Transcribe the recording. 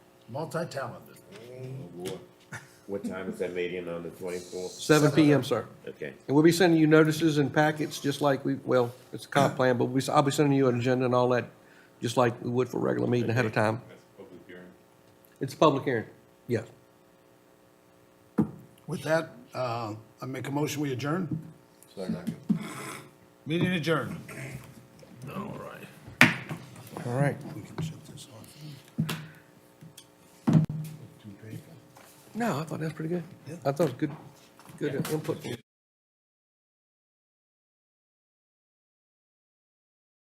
multi-talented. boy. What time is that meeting on the twenty-fourth? Seven PM, sir. Okay, And we'll be sending you notices and packets, just like we, well, it's a comp plan, but we, I'll be sending you an agenda and all that, just like we would for a regular meeting ahead of time. That's a public hearing. It's a public hearing, yes. With that, uh, I make a motion, we adjourn? Meeting adjourned. All right. We can shut this off. Too painful. No, I thought that was pretty good. I thought it was good, good input.